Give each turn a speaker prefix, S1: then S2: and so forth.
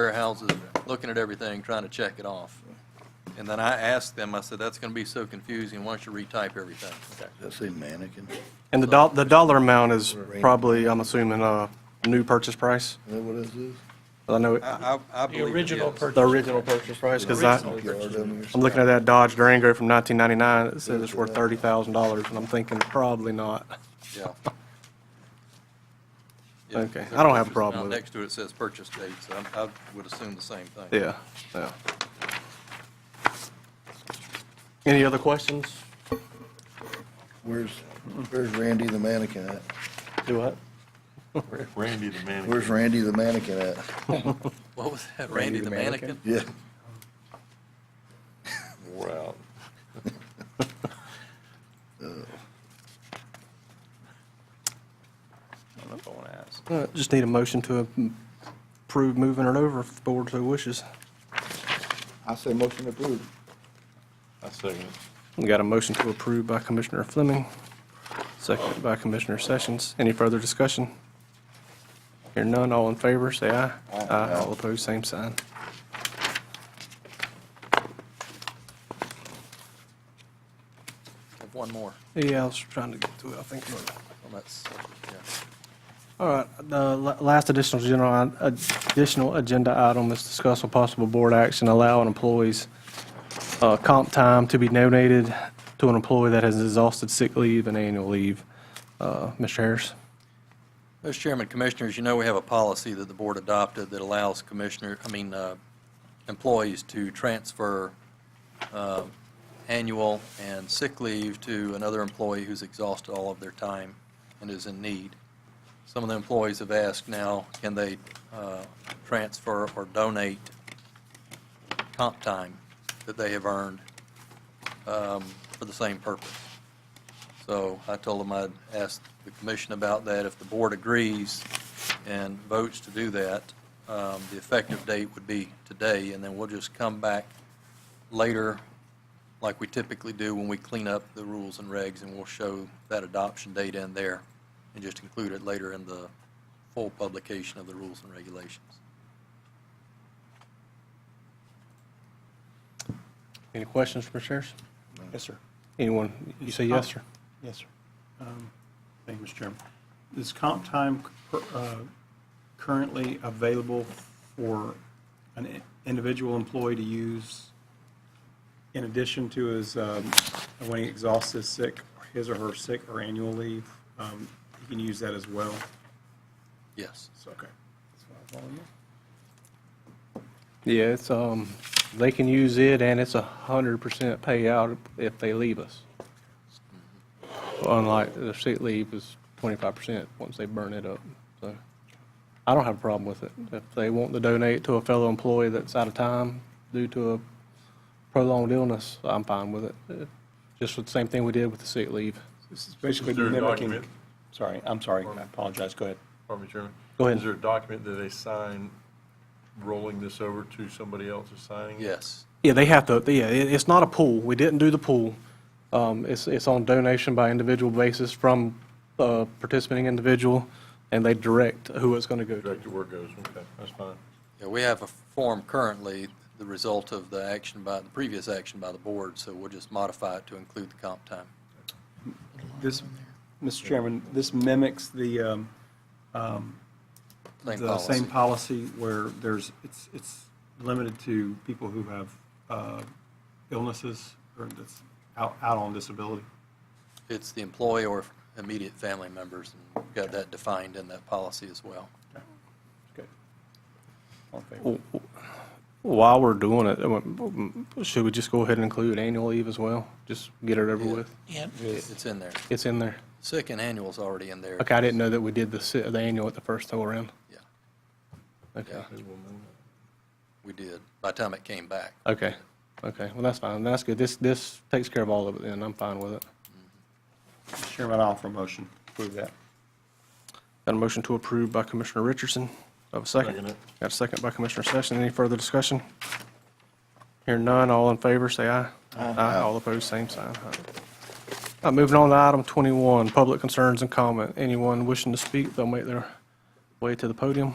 S1: warehouses, looking at everything, trying to check it off. And then I asked them, I said, that's going to be so confusing, why don't you retype everything?
S2: Does that say mannequin? Is
S3: And the doll, the dollar amount is probably, I'm assuming, a new purchase price.
S2: that what this is?
S3: I know it-
S1: I, I I believe it is.
S4: original purchase.
S3: the original purchase price, because I,
S2: Junkyard down there.
S3: I'm looking at that Dodge Durango from 1999, it says it's worth $30,000, and I'm thinking probably not.
S1: Yeah. Yeah,
S3: Okay,
S1: their
S3: I don't have a
S1: purchase
S3: problem
S1: amount
S3: with it.
S1: Next to it says purchase date, so I'm- I would assume the same thing.
S3: Yeah, yeah. Any other questions?
S2: Where's, where's Randy the mannequin at?
S3: Do what?
S5: Randy the man.
S2: Where's Randy the mannequin at?
S1: What was that, Randy the mannequin?
S2: Yeah.
S5: Wore out.
S4: I don't know if I want to ask.
S3: Uh, Just need a motion to approve moving it over if the board so wishes.
S6: I say motion approved.
S5: I second it.
S3: We got a motion to approve by Commissioner Fleming, seconded by Commissioner Sessions. Any further discussion? Hear none, all in favor, say aye. Aye. All opposed, same sign.
S1: Have One more.
S3: Yeah, I was trying to get to it, I think.
S1: Well, that's, yeah.
S3: All right, the la- last additional general, additional agenda item is discuss with possible board action allowing employees uh, comp time to be donated to an employee that has exhausted sick leave and annual leave. Uh, Mr. Harris?
S1: Mr. Chairman, Commissioners, you know we have a policy that the board adopted that allows commissioner, I mean, uh, employees to transfer uh, annual and sick leave to another employee who's exhausted all of their time and is in need. Some of the employees have asked now, can they uh, transfer or donate comp time that they have earned um, for the same purpose? So I told them I'd ask the commission about that. If the board agrees and votes to do that, um, the effective date would be today, and then we'll just come back later, like we typically do when we clean up the rules and regs, and we'll show that adoption date in there and just include it later in the full publication of the rules and regulations.
S3: Any questions for Mr. Harris? Yes, sir. Anyone? You say yes, sir?
S7: Yes, sir. Um, Thank you, Mr. Chairman. Is comp time cur- uh, currently available for an i- individual employee to use in addition to his, um, when he exhausts his sick, his or her sick or annual leave? um, He can use that as well?
S1: Yes.
S7: So, okay. That's what I was wondering.
S3: Yeah, it's, um, they can use it and it's a hundred percent payout if they leave us. Unlike the sick leave is twenty-five percent once they burn it up, so. I don't have a problem with it. If they want to donate to a fellow employee that's out of time due to a prolonged illness, I'm fine with it. Uh, Just the same thing we did with the sick leave.
S7: This is basically
S5: Is there a
S7: mimicking.
S5: document?
S7: Sorry, I'm sorry. I apologize. Go ahead.
S5: Pardon me, Chairman.
S3: Go ahead.
S5: Is there a document that they sign rolling this over to somebody else who's signing it?
S1: Yes.
S3: Yeah, they have to, yeah, it, it's not a pool. We didn't do the pool. Um, it's, it's on donation by individual basis from a participating individual, and they direct who it's gonna go to.
S5: Director where it goes, okay, that's fine.
S1: Yeah, we have a form currently, the result of the action by, the previous action by the board, so we'll just modify it to include the comp time.
S7: This, Mr. Chairman, this mimics the, um,
S1: Same
S7: the same
S1: policy.
S7: policy where there's, it's, it's limited to people who have uh, illnesses or that's out, out on disability.
S1: It's the employee or immediate family members, and we've got that defined in that policy as well.
S7: Good. All in favor?
S3: While we're doing it, uh, should we just go ahead and include annual leave as well? Just get it over with?
S1: It's in there.
S3: It's in there.
S1: Sick and annual's already in there.
S3: Okay, I didn't know that we did the, si- the annual at the first go around.
S1: Yeah,
S3: Okay,
S1: Yeah. we did, by the time it came back.
S3: okay, okay. Well, that's fine. That's good. This, this takes care of all of it, and I'm fine with it.
S7: Mr. Chairman, I'll offer a motion. Approve that.
S3: Got a motion to approve by Commissioner Richardson. Do I have a
S5: Second
S3: second?
S5: it.
S3: Got a second by Commissioner Sessions. Any further discussion? Hear none, all in favor, say aye. Aye. All opposed, same sign. Uh, Moving on to item 21, public concerns and comment. Anyone wishing to speak, they'll make their way to the podium.